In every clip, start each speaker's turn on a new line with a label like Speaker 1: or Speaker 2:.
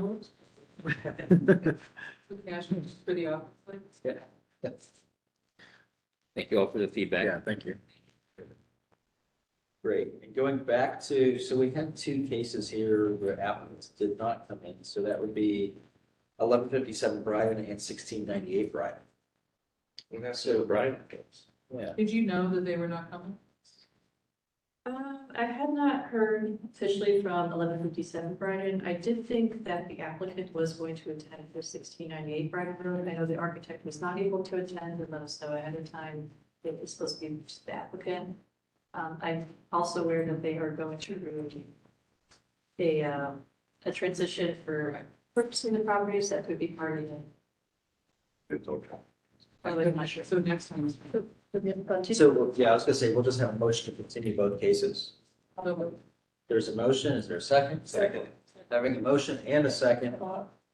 Speaker 1: dollars for cash for the office lights.
Speaker 2: Thank you all for the
Speaker 3: Yeah,
Speaker 2: feedback.
Speaker 3: thank you.
Speaker 4: Great, and going back to, so we had two cases here where applicants did not come in, so that would be eleven fifty-seven Brian and sixteen ninety-eight Brian.
Speaker 5: And that's
Speaker 4: So-
Speaker 5: the Brian case.
Speaker 4: Yeah.
Speaker 1: Did you know that they were not coming?
Speaker 6: Um, I had not heard officially from eleven fifty-seven Brighton. I did think that the applicant was going to attend for sixteen ninety-eight Brighton Road. I know the architect was not able to attend and let us know ahead of time. that It was supposed to be just the applicant. Um, I'm also aware that they are going to do a, uh, a transition for purchasing the properties that could be part of it.
Speaker 5: It's okay.
Speaker 6: By the way, I'm not sure.
Speaker 1: So next time,
Speaker 4: So, well, yeah, I was gonna say, we'll just have a motion to continue both cases.
Speaker 1: although
Speaker 4: There's a motion, is there a second?
Speaker 5: Second.
Speaker 4: Having a motion and a second,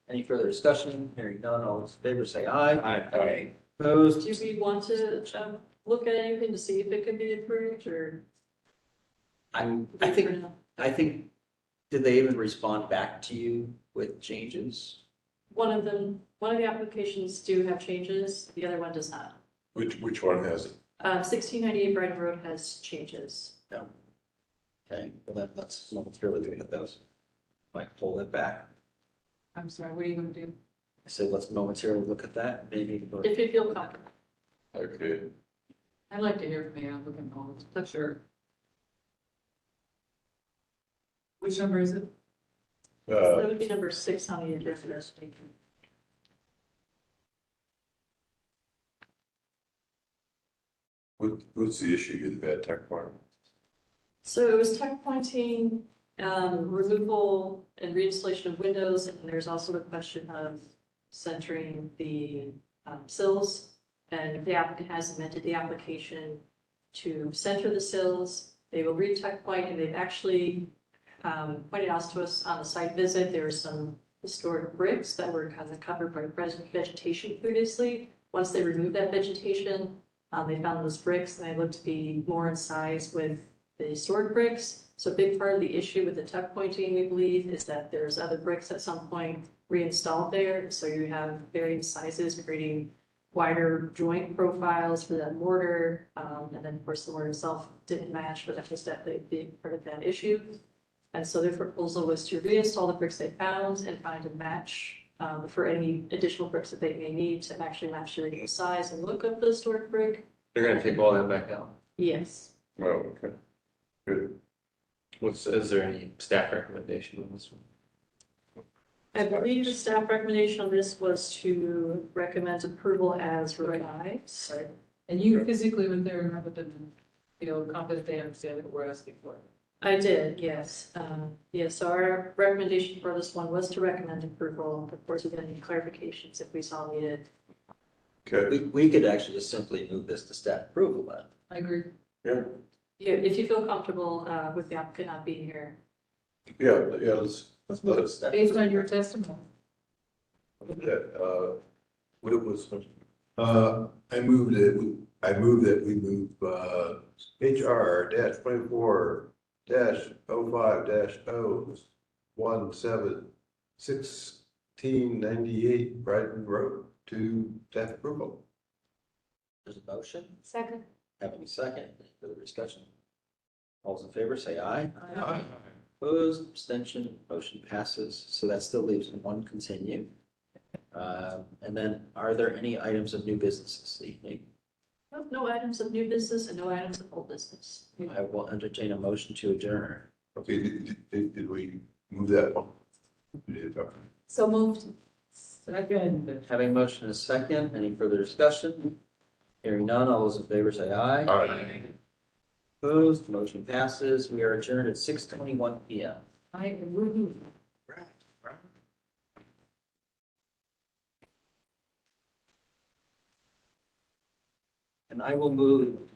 Speaker 4: any further discussion, hearing none, all those in favor say aye.
Speaker 5: Aye.
Speaker 4: Opposed?
Speaker 6: Do we want to, um, look at anything to see if it could be approved or?
Speaker 4: I'm, I think, I think, did they even respond back to you with changes?
Speaker 6: One of them, one of the applications do have changes, the other one does not.
Speaker 5: Which, which one has it?
Speaker 6: Uh, sixteen ninety-eight Brighton Road has changes.
Speaker 4: Okay, well, that, that's, we'll through with at those. Might pull it back.
Speaker 1: I'm sorry, what are you gonna do?
Speaker 4: I said, let's momentarily look at that, maybe. vote.
Speaker 6: If you feel comfortable,
Speaker 5: Okay,
Speaker 1: I'd like to hear from the applicant, all, that's sure. Which number is it?
Speaker 6: So
Speaker 5: uh,
Speaker 6: that would be number six on the agenda. for this week.
Speaker 5: what, what's the issue with the bad tech part?
Speaker 6: So it was tuck pointing, um, removal and reinstallation of windows, and there's also the question of centering the, um, sills. And if the applicant has amended the application to center the sills, they will re-tuck point, and they've actually, um, pointed out to us on the site visit, there were some historic bricks that were kind of covered by present vegetation previously. Once they removed that vegetation, um, they found those bricks, and they looked to be more in size with the sword bricks. So a big part of the issue with the tuck pointing, we believe, is that there's other bricks at some point reinstalled there. So you have varying sizes creating wider joint profiles for that mortar. Um, and then of course the mortar itself didn't match, but that was definitely a big part of that issue. And so their proposal was to reinstall the bricks they found and find a match um, for any additional bricks that they may need to actually match the original size and look of the historic brick.
Speaker 5: They're gonna take all that back out.
Speaker 6: Yes.
Speaker 5: Oh, okay. Good.
Speaker 2: What's, is there any staff recommendation on this one?
Speaker 6: I believe the staff recommendation on this was to recommend approval as revised.
Speaker 1: And you physically went there and rather than, you know, confident they understand what we're asking for.
Speaker 6: I did, yes. Um, Yeah, so our recommendation for this one was to recommend approval. Of course, with any clarifications if we saw needed.
Speaker 5: Okay,
Speaker 4: We, we could actually just simply move this to staff approval then.
Speaker 1: I agree.
Speaker 5: yeah,
Speaker 6: Yeah, if you feel comfortable uh, with the applicant not being here.
Speaker 5: yeah, yeah, let's, let's let us,
Speaker 4: Staff-
Speaker 1: Based on your testimony.
Speaker 5: that, uh, what was, uh, I moved it, we- I moved that we move, uh, HR dash twenty-four dash oh five dash oh one seven sixteen ninety-eight Brighton Road to staff approval.
Speaker 4: There's a motion,
Speaker 6: Second.
Speaker 4: having a second, Any further discussion. All those in favor say aye.
Speaker 5: Uh,
Speaker 1: Aye.
Speaker 4: Opposed, abstention, motion passes, so that still leaves one continue. Um, and then are there any items of new business this evening?
Speaker 6: No- No items of new business and no items of old business.
Speaker 4: I will entertain a motion to adjourn.
Speaker 5: Okay, did, did- did, did we move that one? We did, okay.
Speaker 1: So moved. Second.
Speaker 4: Having motion and a second, any further discussion? Hearing none, all those in favor say aye.
Speaker 5: All right.
Speaker 4: Opposed, motion passes. We are adjourned at six twenty-one P M.
Speaker 1: I am moving.
Speaker 4: And I will move